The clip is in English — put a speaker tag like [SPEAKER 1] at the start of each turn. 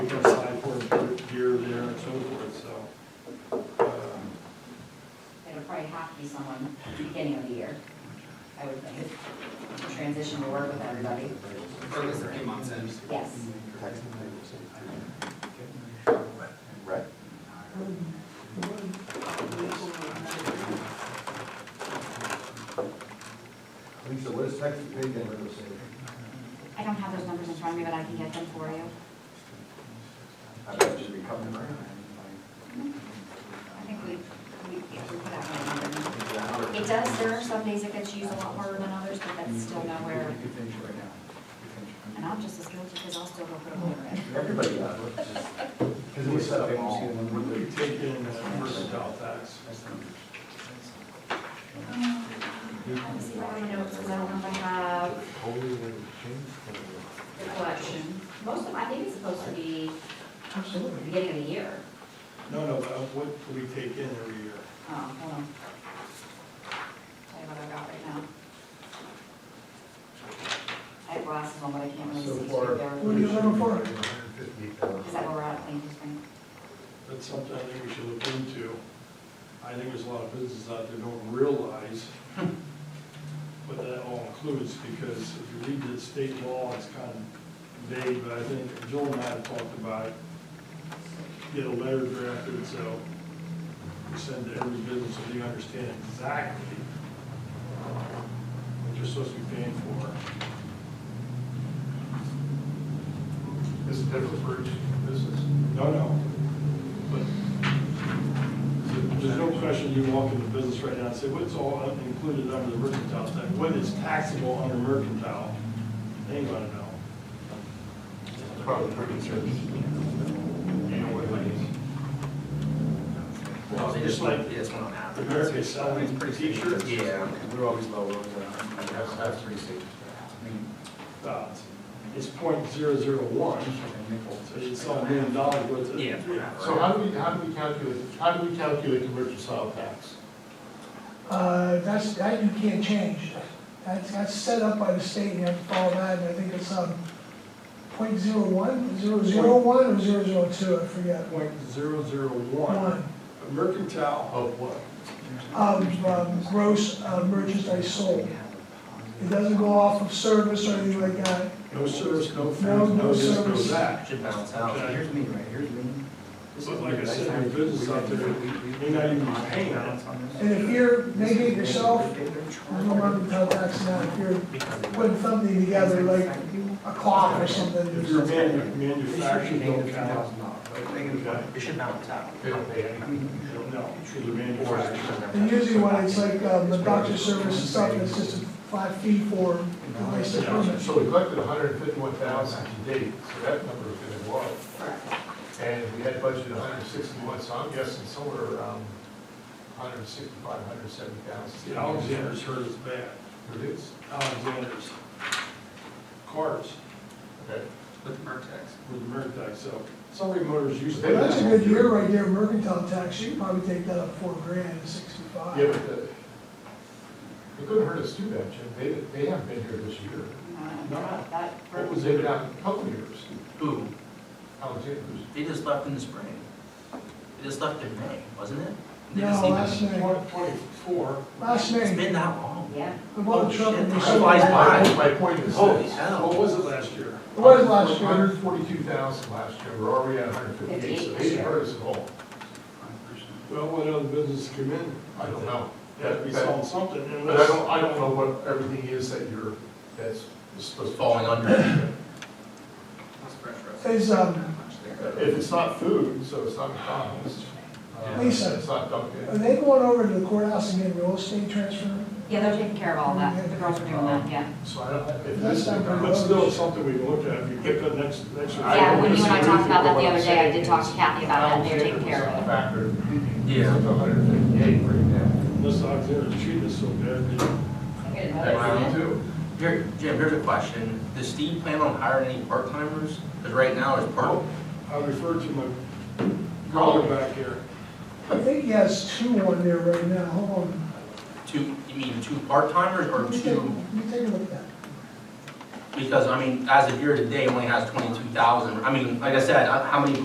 [SPEAKER 1] um,
[SPEAKER 2] beginning of the year, I would think. Transition to work with everybody,
[SPEAKER 3] Or at least a few months in.
[SPEAKER 2] yes.
[SPEAKER 4] Right.
[SPEAKER 5] Lisa, what is Texas pay gap ratio say?
[SPEAKER 2] I don't have those numbers in front of me, but I can get them for you.
[SPEAKER 5] I bet you be coming around.
[SPEAKER 2] I think we, we, if we put out that number.
[SPEAKER 5] It's a hundred.
[SPEAKER 2] It does, there are some days it gets used a lot more than others, but that's still nowhere, and I'm just as guilty because I'll still go put a hole in it.
[SPEAKER 5] Everybody got it. Because we set up all.
[SPEAKER 1] We're taking versatile tax.
[SPEAKER 2] Let me see what I know, because I don't know if I have the collection. Most of, I think it's supposed to be the beginning of the year.
[SPEAKER 1] No, no, but what do we take in every year?
[SPEAKER 2] Oh, hold on. Tell you what I got right now. I have glasses on, but I can't really see.
[SPEAKER 5] So
[SPEAKER 2] through
[SPEAKER 5] far.
[SPEAKER 2] there.
[SPEAKER 5] for?
[SPEAKER 2] Is that where we're at, Thank you, Spring?
[SPEAKER 1] That's something I think we should look into. I think there's a lot of businesses out there don't realize what that all includes, because if you read the state law, it's kind of vague, but I think Joel and I have talked about it. get a letter drafted, so we send to every business so they understand exactly what you're supposed to be paying for.
[SPEAKER 6] This is different for each business.
[SPEAKER 1] No, no. But There's no question you walk into business right now and say, what's all included under the mercantile tax? What is taxable under mercantile? They ain't gonna know.
[SPEAKER 6] It's probably pretty serious. You know what it is.
[SPEAKER 3] Well, they just
[SPEAKER 1] Just like-
[SPEAKER 3] like, it's one on half.
[SPEAKER 1] America's selling t-shirts.
[SPEAKER 3] Yeah.
[SPEAKER 4] We're always low, we're always low.
[SPEAKER 5] That's, that's pretty safe.
[SPEAKER 1] Uh, It's point zero zero one, so it's all million dollars worth of.
[SPEAKER 3] Yeah.
[SPEAKER 6] So how do we, how do we calculate, how do we calculate the mercantile tax?
[SPEAKER 7] Uh, That's, that you can't change. That's, that's set up by the state, and you have to follow that, and I think it's, um, point zero one, zero zero one, or zero zero two, I forget.
[SPEAKER 1] Point zero zero one.
[SPEAKER 7] One,
[SPEAKER 1] Mercantile,
[SPEAKER 6] Of what?
[SPEAKER 7] um, um, gross uh, merchandise sold. It doesn't go off of service or anything like that.
[SPEAKER 1] no service, no
[SPEAKER 7] No,
[SPEAKER 1] food,
[SPEAKER 7] no
[SPEAKER 1] no this, no
[SPEAKER 7] service.
[SPEAKER 1] that.
[SPEAKER 4] Should balance out.
[SPEAKER 1] Okay.
[SPEAKER 4] Here's me, right, here's me.
[SPEAKER 1] But like I said, your business out there, may not even be paying on it.
[SPEAKER 7] And if you're making it yourself, there's no mercantile tax now. If you're putting something together, like a clock or something,
[SPEAKER 1] If you're
[SPEAKER 7] there's-
[SPEAKER 1] manu- manufacturing, don't count.
[SPEAKER 4] It should balance out.
[SPEAKER 1] No, because you're manufacturing.
[SPEAKER 7] and usually when it's like, um, the doctor service and stuff, it's just a five fee for the license permit.
[SPEAKER 6] So we collected hundred and fifty-one thousand to date, so that number is gonna go up.
[SPEAKER 2] Correct.
[SPEAKER 6] And we had budgeted hundred and sixty-one, so I'm guessing somewhere around hundred and sixty-five, hundred and seventy
[SPEAKER 1] See,
[SPEAKER 6] thousand.
[SPEAKER 1] Alexander's hurt us bad.
[SPEAKER 6] Reduce,
[SPEAKER 1] Alexander's cars
[SPEAKER 6] okay?
[SPEAKER 3] With Mertex.
[SPEAKER 1] with Mercantile, so somebody motors used
[SPEAKER 7] Well, That's a
[SPEAKER 1] to.
[SPEAKER 7] good year right there, mercantile tax, you could probably take that up four grand, sixty-five.
[SPEAKER 6] Yeah, but the, it couldn't hurt us too bad, Jim, they, they haven't been here this year.
[SPEAKER 2] No, Uh, that,
[SPEAKER 6] What was it, about a couple years,
[SPEAKER 8] Who?
[SPEAKER 6] Alexander's?
[SPEAKER 8] They just left in the spring. They just left in May, wasn't it? They just
[SPEAKER 7] No,
[SPEAKER 8] even-
[SPEAKER 7] last name,
[SPEAKER 1] Twenty-four,
[SPEAKER 7] last
[SPEAKER 8] It's
[SPEAKER 7] name,
[SPEAKER 8] been that long.
[SPEAKER 2] yeah.
[SPEAKER 7] the one
[SPEAKER 8] Oh,
[SPEAKER 7] truck.
[SPEAKER 8] shit.
[SPEAKER 7] in
[SPEAKER 8] I realized
[SPEAKER 7] the-
[SPEAKER 8] why.
[SPEAKER 6] My my point is
[SPEAKER 8] Holy
[SPEAKER 6] this.
[SPEAKER 1] what
[SPEAKER 8] hell.
[SPEAKER 1] was it last year?
[SPEAKER 7] It was last year,
[SPEAKER 6] Hundred forty-two thousand last year, we're already at hundred fifty-eight, so they didn't hurt us at all,
[SPEAKER 1] Well, what other business come in?
[SPEAKER 6] I don't know.
[SPEAKER 1] They have to be selling something
[SPEAKER 6] But I
[SPEAKER 1] unless.
[SPEAKER 6] don't, I don't know what everything is that you're, that's supposed to.
[SPEAKER 8] Falling under.
[SPEAKER 3] That's pressure.
[SPEAKER 7] is, um,
[SPEAKER 6] If it's not food, so it's not McDonald's. uh,
[SPEAKER 7] Lisa.
[SPEAKER 6] It's not Dunkin'.
[SPEAKER 7] are they going over to the courthouse and getting real estate transfer?
[SPEAKER 2] Yeah, they're taking care of all that, the girls are doing that, yeah.
[SPEAKER 6] So I don't, if
[SPEAKER 7] That's
[SPEAKER 6] this is.
[SPEAKER 7] not very
[SPEAKER 1] But still, it's something we can look at, if you pick up next, next.
[SPEAKER 6] I
[SPEAKER 2] Yeah,
[SPEAKER 6] don't
[SPEAKER 2] when you and I
[SPEAKER 6] disagree
[SPEAKER 2] talked about that the
[SPEAKER 6] with what
[SPEAKER 2] other day, I did talk to
[SPEAKER 6] I'm
[SPEAKER 2] Kathy about that, and they're taking care of it.
[SPEAKER 6] Factor. It's
[SPEAKER 8] Yeah.
[SPEAKER 6] up to 158 right
[SPEAKER 1] Unless Alexander's treating us so bad, they-
[SPEAKER 2] I'm gonna
[SPEAKER 6] now. Round
[SPEAKER 2] notice it.
[SPEAKER 6] two.
[SPEAKER 8] Here, Jim, here's a question. Does Steve plan on hiring any part-timers? Because right now it's part,
[SPEAKER 1] I refer to my colleague back here.
[SPEAKER 7] I think he has two on there right now, hold on.
[SPEAKER 8] two, you mean two part-timers
[SPEAKER 7] Let
[SPEAKER 8] or
[SPEAKER 7] me take-
[SPEAKER 8] two?
[SPEAKER 7] Let me take a look at that.
[SPEAKER 8] Because, I mean, as of year today, only has twenty-two thousand. I mean, like I said, I- how many